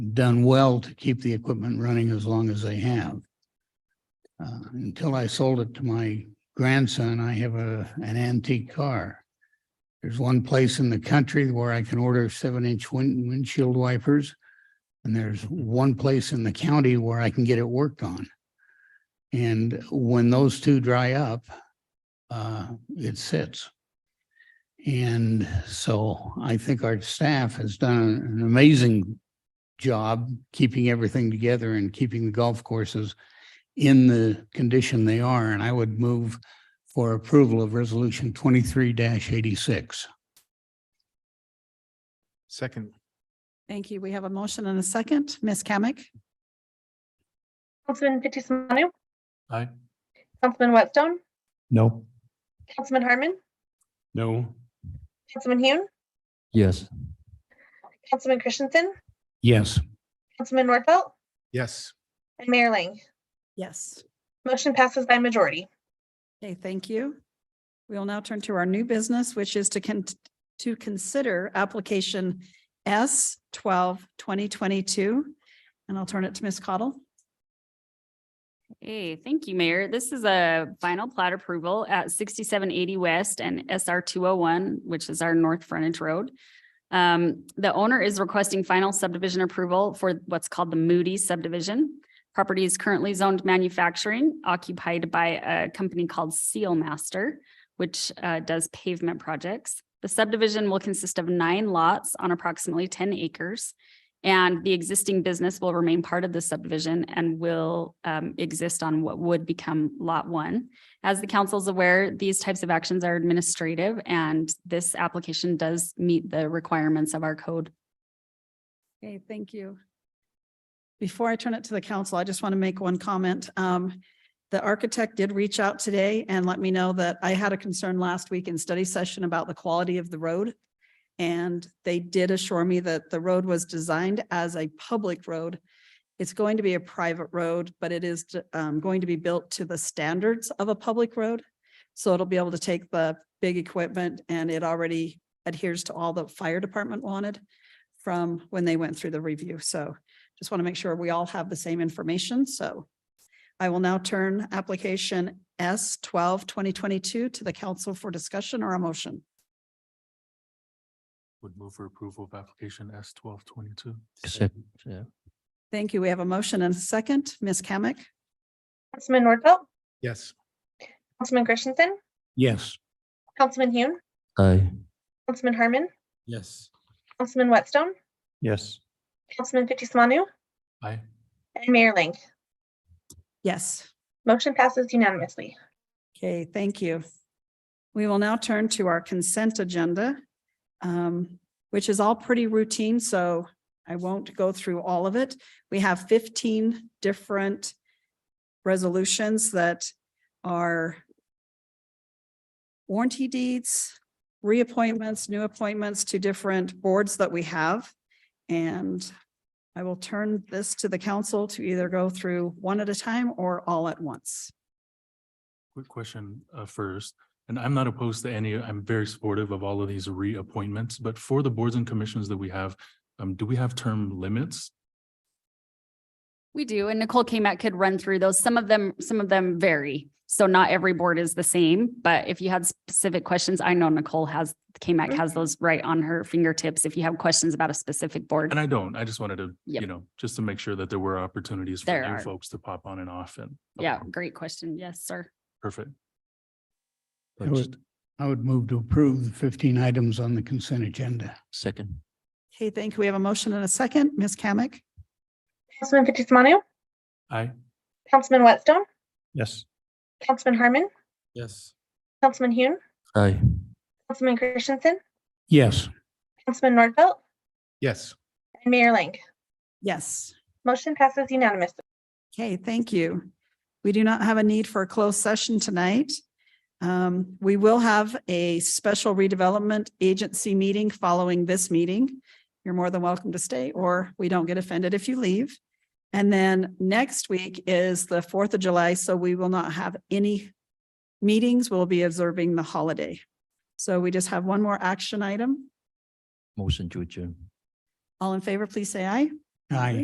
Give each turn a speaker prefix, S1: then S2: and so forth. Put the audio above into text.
S1: done well to keep the equipment running as long as they have. Uh, until I sold it to my grandson, I have a, an antique car. There's one place in the country where I can order seven inch wind, windshield wipers. And there's one place in the county where I can get it worked on. And when those two dry up, uh, it sits. And so I think our staff has done an amazing job keeping everything together and keeping the golf courses in the condition they are. And I would move for approval of resolution twenty-three eighty-six.
S2: Second,
S3: Thank you. We have a motion and a second. Ms. Kamic?
S4: Councilman Fitzie Umanu,
S2: aye.
S4: Councilman Whitstone,
S2: No.
S4: Councilman Harmon,
S2: No.
S4: Councilman Hune,
S5: yes,
S4: Councilman Christensen,
S1: Yes.
S4: Councilman Nordfelt,
S2: Yes,
S4: and Mayor Ling.
S3: Yes.
S4: Motion passes by majority.
S3: Okay, thank you. We will now turn to our new business, which is to con- to consider application S 12 2022, And I'll turn it to Ms. Cottle.
S6: Hey, thank you, Mayor. This is a final plat approval at sixty-seven eighty West and SR two oh one, which is our north frontage road. Um, the owner is requesting final subdivision approval for what's called the Moody subdivision. Property is currently zoned manufacturing occupied by a company called Seal Master, which uh, does pavement projects. The subdivision will consist of nine lots on approximately ten acres. And the existing business will remain part of the subdivision and will um, exist on what would become lot one. As the council's aware, these types of actions are administrative and this application does meet the requirements of our code.
S3: Okay, thank you. Before I turn it to the council, I just want to make one comment. Um, the architect did reach out today and let me know that I had a concern last week in study session about the quality of the road. And they did assure me that the road was designed as a public road. It's going to be a private road, but it is, um, going to be built to the standards of a public road. So it'll be able to take the big equipment and it already adheres to all the fire department wanted from when they went through the review. So just want to make sure we all have the same information. So I will now turn application S 12 2022 to the council for discussion or a motion.
S7: Would move for approval of application S twelve twenty-two.
S5: Sec- yeah,
S3: Thank you. We have a motion and a second. Ms. Kamic?
S4: Councilman Nordfelt,
S2: yes,
S4: Councilman Christensen,
S1: Yes.
S4: Councilman Hune,
S5: aye,
S4: Councilman Harmon,
S7: Yes.
S4: Councilman Whitstone,
S2: yes,
S4: Councilman Fitzie Umanu,
S7: Aye.
S4: and Mayor Ling.
S3: Yes.
S4: Motion passes unanimously.
S3: Okay, thank you. We will now turn to our consent agenda, um, which is all pretty routine, so I won't go through all of it. We have fifteen different resolutions that are warranty deeds, reappointments, new appointments to different boards that we have. And I will turn this to the council to either go through one at a time or all at once.
S7: Quick question uh, first, and I'm not opposed to any, I'm very supportive of all of these reappointments, but for the boards and commissions that we have, um, do we have term limits?
S6: We do, and Nicole Kmat could run through those. Some of them, some of them vary. So not every board is the same, but if you had specific questions, I know Nicole has, Kmat has those right on her fingertips. If you have questions about a specific board.
S7: And I don't, I just wanted to,
S6: Yep.
S7: you know, just to make sure that there were opportunities for
S6: There
S7: new
S6: are.
S7: folks to pop on and off and. okay,
S6: Yeah, great question. Yes, sir.
S7: Perfect.
S1: I would, I would move to approve the fifteen items on the consent agenda.
S5: second,
S3: Okay, thank you. We have a motion and a second. Ms. Kamic?
S4: Councilman Fitzie Umanu,
S7: Aye.
S4: Councilman Whitstone,
S2: yes.
S4: Councilman Harmon,
S7: Yes.
S4: Councilman Hune,
S5: aye,
S4: Councilman Christensen,
S1: Yes.
S4: Councilman Nordfelt,
S2: Yes,
S4: and Mayor Ling.
S3: Yes.
S4: Motion passes unanimously.
S3: Okay, thank you. We do not have a need for a closed session tonight. Um, we will have a special redevelopment agency meeting following this meeting. You're more than welcome to stay, or we don't get offended if you leave. And then next week is the Fourth of July, so we will not have any meetings. We'll be observing the holiday. So we just have one more action item.
S5: motion to adjourn.
S3: All in favor, please say aye.
S1: Aye.